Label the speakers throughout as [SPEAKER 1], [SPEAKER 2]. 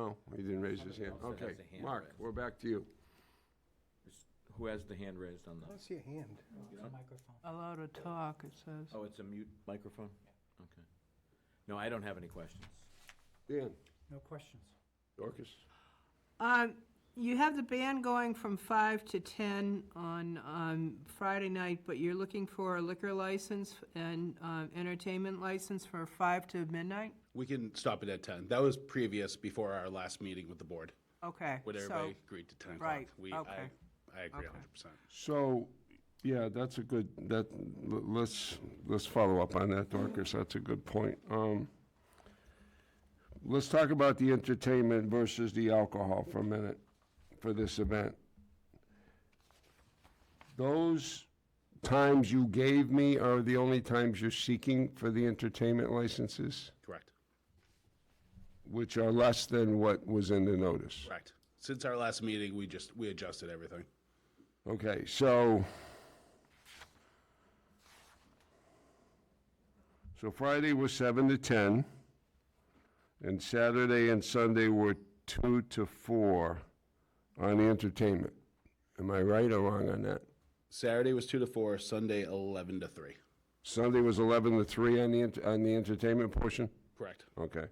[SPEAKER 1] Oh, He didn't raise his hand.
[SPEAKER 2] Somebody else that
[SPEAKER 1] Okay,
[SPEAKER 2] has a hand
[SPEAKER 1] Mark,
[SPEAKER 2] raised.
[SPEAKER 1] we're back to you.
[SPEAKER 2] Who has the hand raised on
[SPEAKER 3] I
[SPEAKER 2] the,
[SPEAKER 3] don't see a hand.
[SPEAKER 4] Allowed to talk, it says.
[SPEAKER 2] oh, it's a mute microphone? Okay. No, I don't have any questions.
[SPEAKER 1] Dan,
[SPEAKER 3] No questions.
[SPEAKER 1] Dorcas?
[SPEAKER 4] Um, you have the band going from five to ten on, um, Friday night, but you're looking for a liquor license and, um, entertainment license for five to midnight?
[SPEAKER 5] We can stop it at ten. That was previous, before our last meeting with the board,
[SPEAKER 4] Okay,
[SPEAKER 5] when
[SPEAKER 4] so,
[SPEAKER 5] everybody agreed to ten o'clock.
[SPEAKER 4] right,
[SPEAKER 5] We-
[SPEAKER 4] okay.
[SPEAKER 5] I I agree
[SPEAKER 4] Okay.
[SPEAKER 5] a hundred percent.
[SPEAKER 1] So, yeah, that's a good, that, l- let's, let's follow up on that, Dorcas, that's a good point. Um, Let's talk about the entertainment versus the alcohol for a minute, for this event. Those times you gave me are the only times you're seeking for the entertainment licenses,
[SPEAKER 5] Correct,
[SPEAKER 1] which are less than what was in the notice.
[SPEAKER 5] correct. Since our last meeting, we just, we adjusted everything.
[SPEAKER 1] Okay, so. So Friday was seven to ten. And Saturday and Sunday were two to four on the entertainment. Am I right or wrong on that?
[SPEAKER 5] Saturday was two to four, Sunday eleven to three.
[SPEAKER 1] Sunday was eleven to three on the, ent- on the entertainment portion?
[SPEAKER 5] Correct.
[SPEAKER 1] Okay.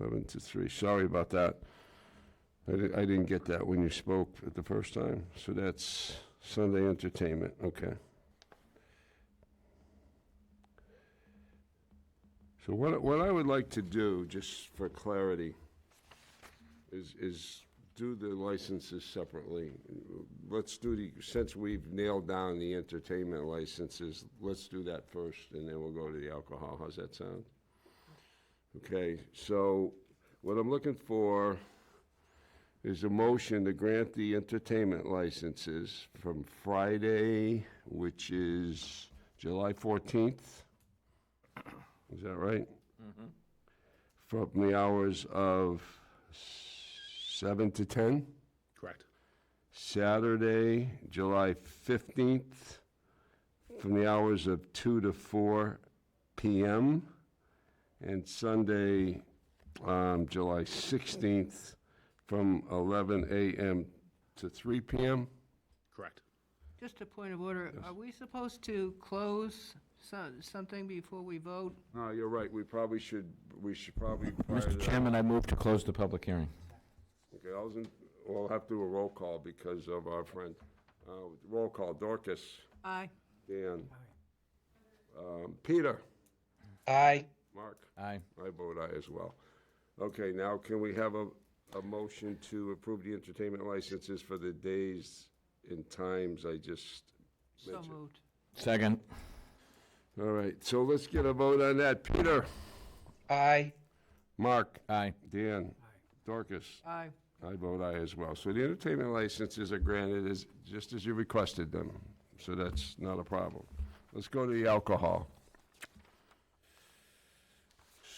[SPEAKER 1] Eleven to three, sorry about that. I di- I didn't get that when you spoke at the first time, so that's Sunday entertainment, okay. So what, what I would like to do, just for clarity, is, is do the licenses separately. Let's do the, since we've nailed down the entertainment licenses, let's do that first, and then we'll go to the alcohol, how's that sound? Okay, so what I'm looking for is a motion to grant the entertainment licenses from Friday, which is July 14th. Is that right? From the hours of seven to 10?
[SPEAKER 5] Correct,
[SPEAKER 1] Saturday, July 15th, from the hours of 2 to 4 p.m., and Sunday, um, July 16th, from 11 a.m. to 3 p.m.
[SPEAKER 5] correct.
[SPEAKER 4] Just a point of order, are we supposed to close so, something before we vote?
[SPEAKER 1] No, you're right, we probably should, we should probably.
[SPEAKER 2] Mr. Chairman, I move to close the public hearing.
[SPEAKER 1] Okay, I was in, we'll have to do a roll call because of our friend. Uh, Roll call, Dorcas,
[SPEAKER 4] Aye.
[SPEAKER 1] Dan. Um, Peter.
[SPEAKER 3] Aye.
[SPEAKER 1] Mark.
[SPEAKER 2] Aye.
[SPEAKER 1] I vote aye as well. Okay, now can we have a, a motion to approve the entertainment licenses for the days and times I just
[SPEAKER 4] So
[SPEAKER 1] mentioned?
[SPEAKER 4] moved.
[SPEAKER 2] Second.
[SPEAKER 1] All right, so let's get a vote on that. Peter?
[SPEAKER 3] Aye.
[SPEAKER 1] Mark?
[SPEAKER 2] Aye.
[SPEAKER 1] Dan? Dorcas?
[SPEAKER 4] Aye.
[SPEAKER 1] I vote aye as well. So the entertainment licenses are granted as, just as you requested them, so that's not a problem. Let's go to the alcohol.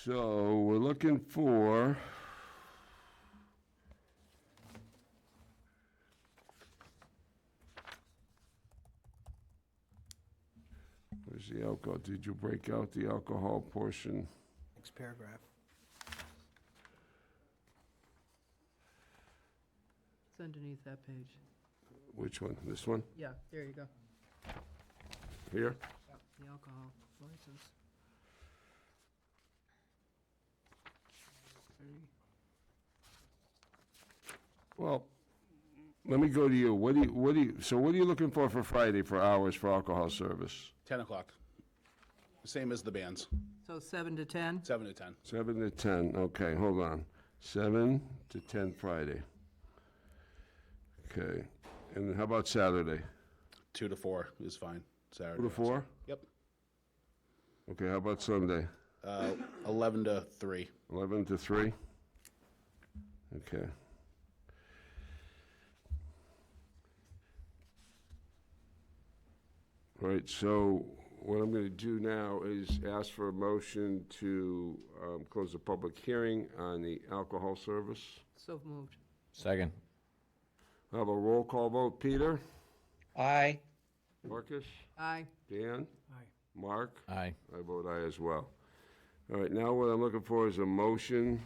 [SPEAKER 1] So we're looking for Where's the alcohol? Did you break out the alcohol portion?
[SPEAKER 3] Next paragraph.
[SPEAKER 4] It's underneath that page.
[SPEAKER 1] Which one? This one?
[SPEAKER 4] Yeah, there you go,
[SPEAKER 1] Here?
[SPEAKER 4] the alcohol license. Thirty.
[SPEAKER 1] Well, let me go to you. What do you, what do you, so what are you looking for for Friday for hours for alcohol service?
[SPEAKER 5] Ten o'clock. Same as the bands,
[SPEAKER 4] So seven to ten?
[SPEAKER 5] seven to ten.
[SPEAKER 1] Seven to ten, okay, hold on. Seven to ten Friday. Okay, and how about Saturday?
[SPEAKER 5] Two to four is fine, Saturday.
[SPEAKER 1] Two to four?
[SPEAKER 5] Yep,
[SPEAKER 1] Okay, how about Sunday?
[SPEAKER 5] uh, eleven to three.
[SPEAKER 1] Eleven to three? Okay. All right, so what I'm gonna do now is ask for a motion to, um, close the public hearing on the alcohol service.
[SPEAKER 4] So moved.
[SPEAKER 2] Second.
[SPEAKER 1] Have a roll call vote, Peter?
[SPEAKER 3] Aye.
[SPEAKER 1] Marcus?
[SPEAKER 4] Aye.
[SPEAKER 1] Dan?
[SPEAKER 3] Aye.
[SPEAKER 1] Mark?
[SPEAKER 2] Aye.
[SPEAKER 1] I vote aye as well. All right, now what I'm looking for is a motion